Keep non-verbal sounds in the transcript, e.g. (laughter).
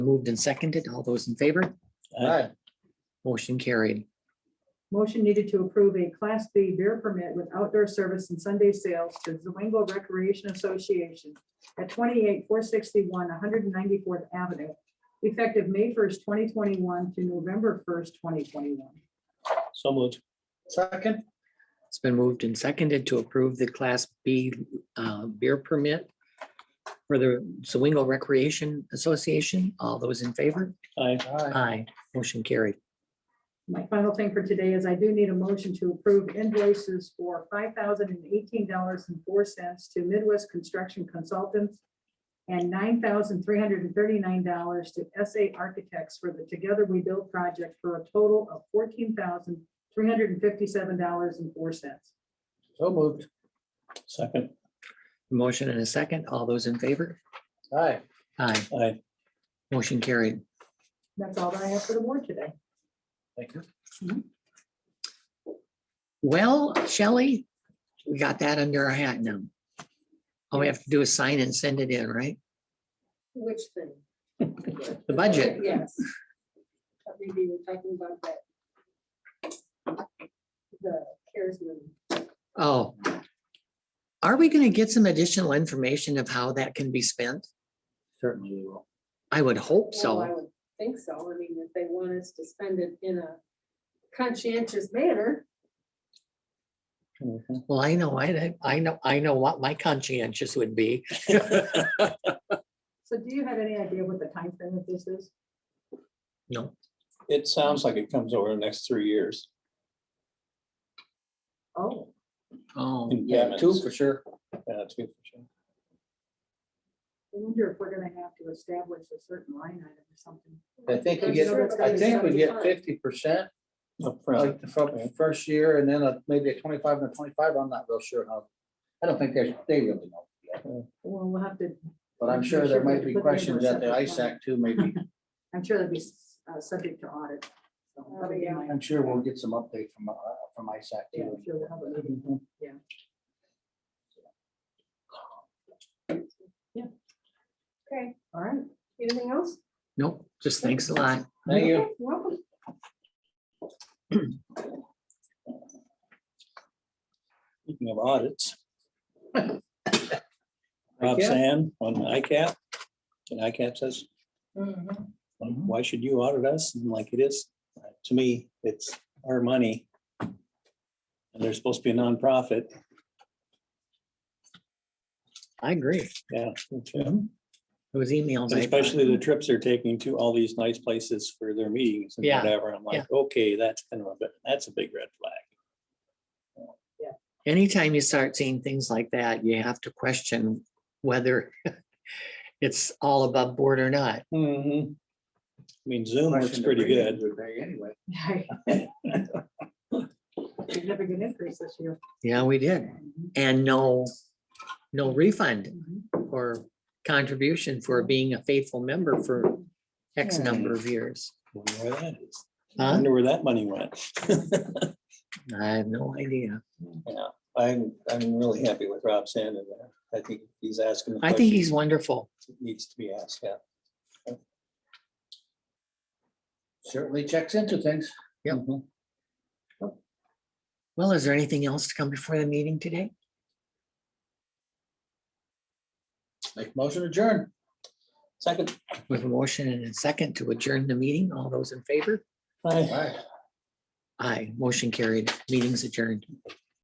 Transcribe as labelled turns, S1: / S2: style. S1: Moved and seconded. All those in favor? Motion carried.
S2: Motion needed to approve a Class B beer permit with outdoor service and Sunday sales to Zwingo Recreation Association at 28461 194th Avenue, effective May 1st, 2021 to November 1st, 2021.
S3: So moved.
S4: Second?
S1: It's been moved and seconded to approve the Class B uh, beer permit for the Zwingo Recreation Association. All those in favor?
S3: Aye.
S4: Aye.
S1: Aye. Motion carried.
S2: My final thing for today is I do need a motion to approve invoices for $5,018.04 to Midwest Construction Consultants and $9,339 to SA Architects for the Together We Build project for a total of $14,357.04.
S4: So moved.
S3: Second.
S1: Motion and a second. All those in favor?
S4: Aye.
S1: Aye.
S3: Aye.
S1: Motion carried.
S2: That's all that I have for the board today.
S4: Thank you.
S1: Well, Shelley, we got that under our hat now. All we have to do is sign and send it in, right?
S5: Which thing?
S1: The budget.
S5: Yes. I think we were talking about that. The CARES money.
S1: Oh. Are we going to get some additional information of how that can be spent?
S4: Certainly we will.
S1: I would hope
S5: Well, I
S1: so.
S5: would think so. I mean, if they want us to spend it in a conscientious manner,
S3: Mm-hmm.
S1: Well, I know, I, I know, I know what my conscientious would be.
S2: So do you have any idea what the timeframe of this is?
S1: No,
S3: It sounds like it comes over the next three years.
S2: Oh,
S1: oh,
S3: in
S4: Yeah, two
S3: payments.
S4: for sure.
S3: Yeah, two for sure.
S2: I wonder if we're going to have to establish a certain line item or something.
S4: I think you
S5: I'm
S4: get,
S5: sure it's
S4: I
S5: gonna
S4: think we
S5: be
S4: get
S5: fine.
S4: fifty percent,
S3: Upfront.
S4: like the fir- first year and then a- maybe a twenty-five and a twenty-five. I'm not real sure how. I don't think they, they really know. yet,
S2: Well, we'll have to
S4: But I'm sure there might be questions at the ISAC too, maybe.
S2: I'm sure that'd be s- uh, subject to audit. so
S5: Oh,
S2: that'd be
S5: yeah.
S2: my-
S4: I'm sure we'll get some update from, uh, from ISAC
S2: yeah, I'm sure we'll have a meeting.
S4: too.
S5: okay,
S2: All right.
S5: anything else?
S1: nope, just thanks a lot.
S4: Thank you.
S5: Okay, Welcome.
S3: Speaking of
S4: (coughs)
S3: audits. Rob
S4: ICAP?
S3: Sand on ICAP. And ICAP says,
S4: Mm-hmm.
S3: why should you audit us? And I'm like it is, to me, it's our money. And they're supposed to be a nonprofit.
S1: I agree.
S3: Yeah.
S4: Mm-hmm.
S1: Those emails.
S3: And
S1: I-
S3: Especially the trips they're taking to all these nice places for their meetings and
S1: Yeah,
S3: whatever. I'm like, okay, that's kind of a bit, that's a big red flag.
S1: Anytime you start seeing things like that, you have to question whether (laughs) it's all above board or not. Mm-hmm.
S3: I mean, Zoom works
S4: Question to
S3: pretty
S4: bring
S3: good.
S4: into the day Anyway.
S2: (laughs) Significant increase this year. Mm-hmm.
S1: Yeah, we did. And no, no refund
S2: Mhm.
S1: or contribution for being a faithful member for X
S3: Hmm.
S1: number of years.
S3: Wonder where that is.
S1: Huh?
S3: Wonder where that money went. (laughs)
S1: I have no idea.
S3: Yeah, I'm, I'm really happy with Rob Sandin there. I think he's asking. the
S1: I think
S3: questions
S1: he's wonderful.
S3: that Needs to be asked, yeah.
S4: Certainly checks into things. Mm-hmm.
S1: Yep. Well, is there anything else to come before the meeting today?
S4: Make motion adjourn.
S3: Second,
S1: With a motion and a second to adjourn the meeting, all those in favor?
S3: I
S4: Aye.
S1: Aye, motion carried, meeting's adjourned.